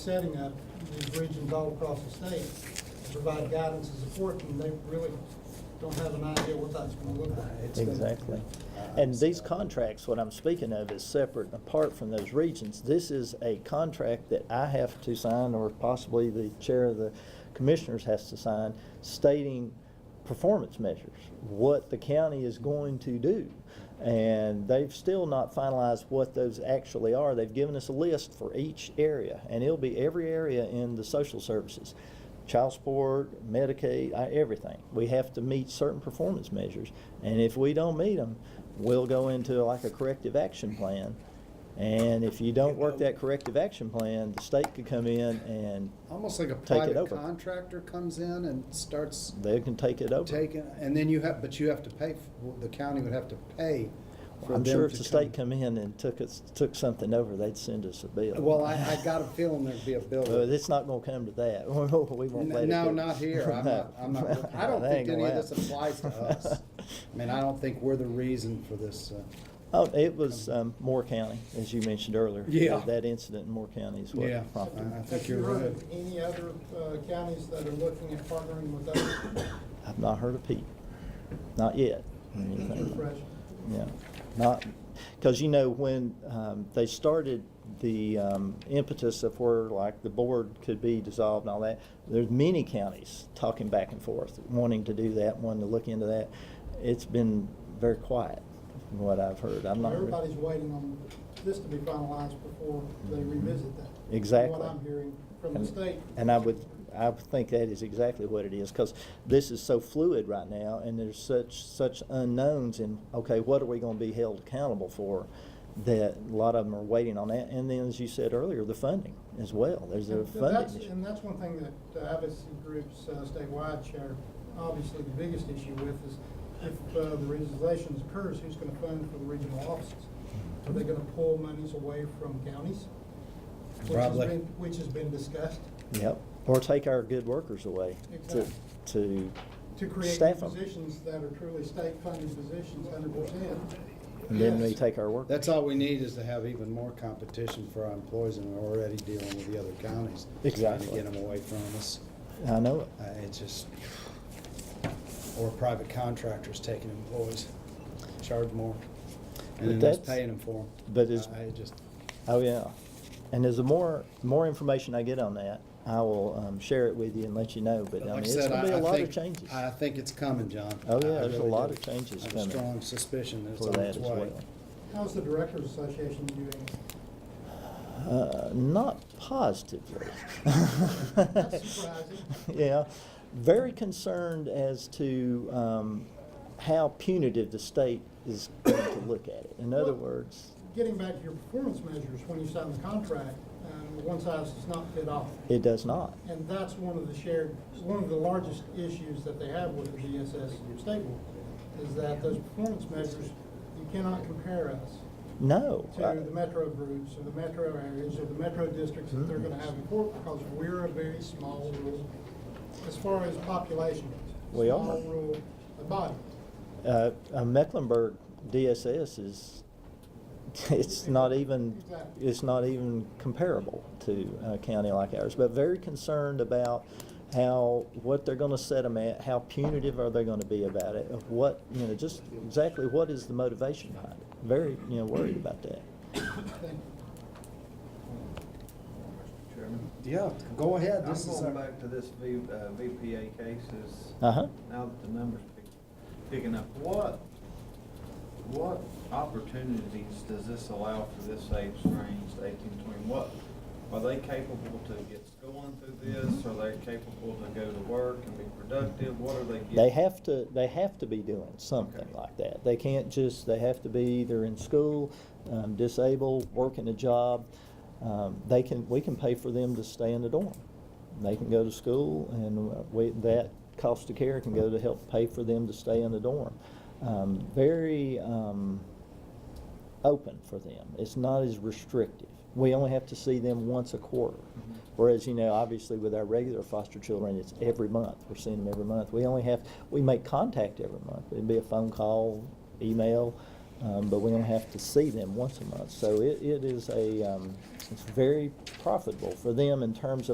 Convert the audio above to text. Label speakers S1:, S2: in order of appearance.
S1: setting up these regions all across the state to provide guidance and support, and they really don't have an idea what that's gonna look
S2: Uh,
S1: like.
S3: Exactly. And these contracts, what I'm speaking of is separate and apart from those regions. This is a contract that I have to sign or possibly the chair of the commissioners has to sign stating performance measures, what the county is going to do. And they've still not finalized what those actually are. They've given us a list for each area and it'll be every area in the social services child support, Medicaid, I- everything. We have to meet certain performance measures, and if we don't meet them, we'll go into like a corrective action plan. And if you don't work that corrective action plan, the state could come in and
S2: Almost like a
S3: Take it
S2: private
S3: over.
S2: contractor comes in and starts
S3: they can take it over.
S2: taking, and then you have, but you have to pay, f- the county would have to pay for them
S3: I'm
S2: to come.
S3: sure if the state come in and took us, took something over, they'd send us a bill.
S2: Well, I, I got a feeling there'd be a
S3: But
S2: bill.
S3: it's not gonna come to that. We won't let it.
S2: No,
S3: go.
S2: not here. I'm not, I'm
S3: No.
S2: not, I don't
S3: That
S2: think
S3: ain't
S2: any
S3: gonna
S2: of this
S3: happen.
S2: applies to us. I mean, I don't think we're the reason for this, uh,
S3: Oh, it was, um, Moore County, as you mentioned earlier.
S2: Yeah.
S3: That incident in Moore County is
S2: Yeah.
S3: what prompted.
S2: I- I
S3: it.
S2: think you're
S1: Have you heard
S2: right.
S1: of Any other uh, counties that are looking at partnering with us?
S3: I've not heard of Pete. Not yet.
S1: Refresh.
S3: Yeah, not, because you know, when um, they started the um, impetus of where like the board could be dissolved and all that, there's many counties talking back and forth, wanting to do that, wanting to look into that. It's been very quiet, from what I've heard. I'm not.
S1: Everybody's waiting on this to be finalized before they revisit that. from
S3: Exactly.
S1: What I'm hearing from the
S3: And-
S1: state.
S3: And I would, I would think that is exactly what it is, because this is so fluid right now, and there's such, such unknowns in, okay, what are we gonna be held accountable for? That a lot of them are waiting on that, and then, as you said earlier, the funding as well, there's a
S1: And that's-
S3: funding
S1: And
S3: issue.
S1: that's one thing that the advocacy groups uh, statewide share, obviously the biggest issue with is if uh, the regionalization occurs, who's gonna fund for the regional offices? Are they gonna pull monies away from counties? Which has
S2: Probably.
S1: been- Which has been discussed
S3: Yep, or take our good workers away to,
S1: Exactly.
S3: to
S1: to create new
S3: staff them.
S1: positions that are truly state-funded positions, hundred percent.
S3: And then we take our workers.
S2: that's all we need is to have even more competition for our employees and we're already dealing with the other counties.
S3: Exactly.
S2: Trying to get them away from us.
S3: I know it.
S2: Uh, it's just, or private contractors taking employees, charge more, and
S3: But
S2: then us
S3: that's-
S2: paying them for them.
S3: but is-
S2: I I just,
S3: Oh, yeah. And as the more, more information I get on that, I will um, share it with you and let you know, but I mean,
S2: like I
S3: it's
S2: said,
S3: gonna be
S2: I,
S3: a
S2: I
S3: lot of
S2: think,
S3: changes.
S2: I think it's coming, John.
S3: Oh, yeah,
S2: I- I
S3: there's a
S2: really
S3: lot
S2: do.
S3: of changes
S2: I have a
S3: coming
S2: strong suspicion that it's
S3: for
S2: on
S3: that
S2: its
S3: as
S2: way.
S3: well.
S1: How's the Directors Association doing?
S3: Uh, not positively.
S1: That's surprising.
S3: Yeah, very concerned as to um, how punitive the state is going to look at it. In other
S1: Well-
S3: words,
S1: Getting back to your performance measures, when you sign the contract, um, one size does not fit all.
S3: it does not.
S1: And that's one of the shared, one of the largest issues that they have with the GSS stable, is that those performance measures, you cannot compare us
S3: No. I-
S1: to the metro groups or the metro areas or the metro districts that they're
S3: Mm-hmm.
S1: gonna have in court, because we're a very small rural, as far as population. goes.
S3: We are.
S1: Small rural body.
S3: Uh, uh, Mecklenburg DSS is, it's not even,
S1: Exactly.
S3: it's not even comparable to a county like ours, but very concerned about how, what they're gonna set them at, how punitive are they gonna be about it, of what, you know, just exactly what is the motivation behind it. Very, you know, worried about that.
S4: Mr. Chairman.
S2: Yeah, go ahead,
S4: I'm
S2: this is
S4: going
S2: our,
S4: back to this V- uh, VPA cases,
S3: Uh-huh.
S4: now that the numbers pick- picking up, what, what opportunities does this allow for this age range, to eighteen to twenty? What, are they capable to get schooling through this? Are they capable to go to work and be productive? What are they getting?
S3: They have to, they have to be doing something
S4: Okay.
S3: like that. They can't just, they have to be either in school, um, disabled, working a job. Um, they can, we can pay for them to stay in the dorm. They can go to school and uh, we, that cost of care can go to help pay for them to stay in the dorm. Um, very, um, open for them. It's not as restrictive. We only have to see them once a quarter. Whereas, you know, obviously with our regular foster children, it's every month. We're seeing them every month. We only have, we make contact every month. It'd be a phone call, email, Um, but we don't have to see them once a month. So it, it is a, um, it's very profitable for them in terms of.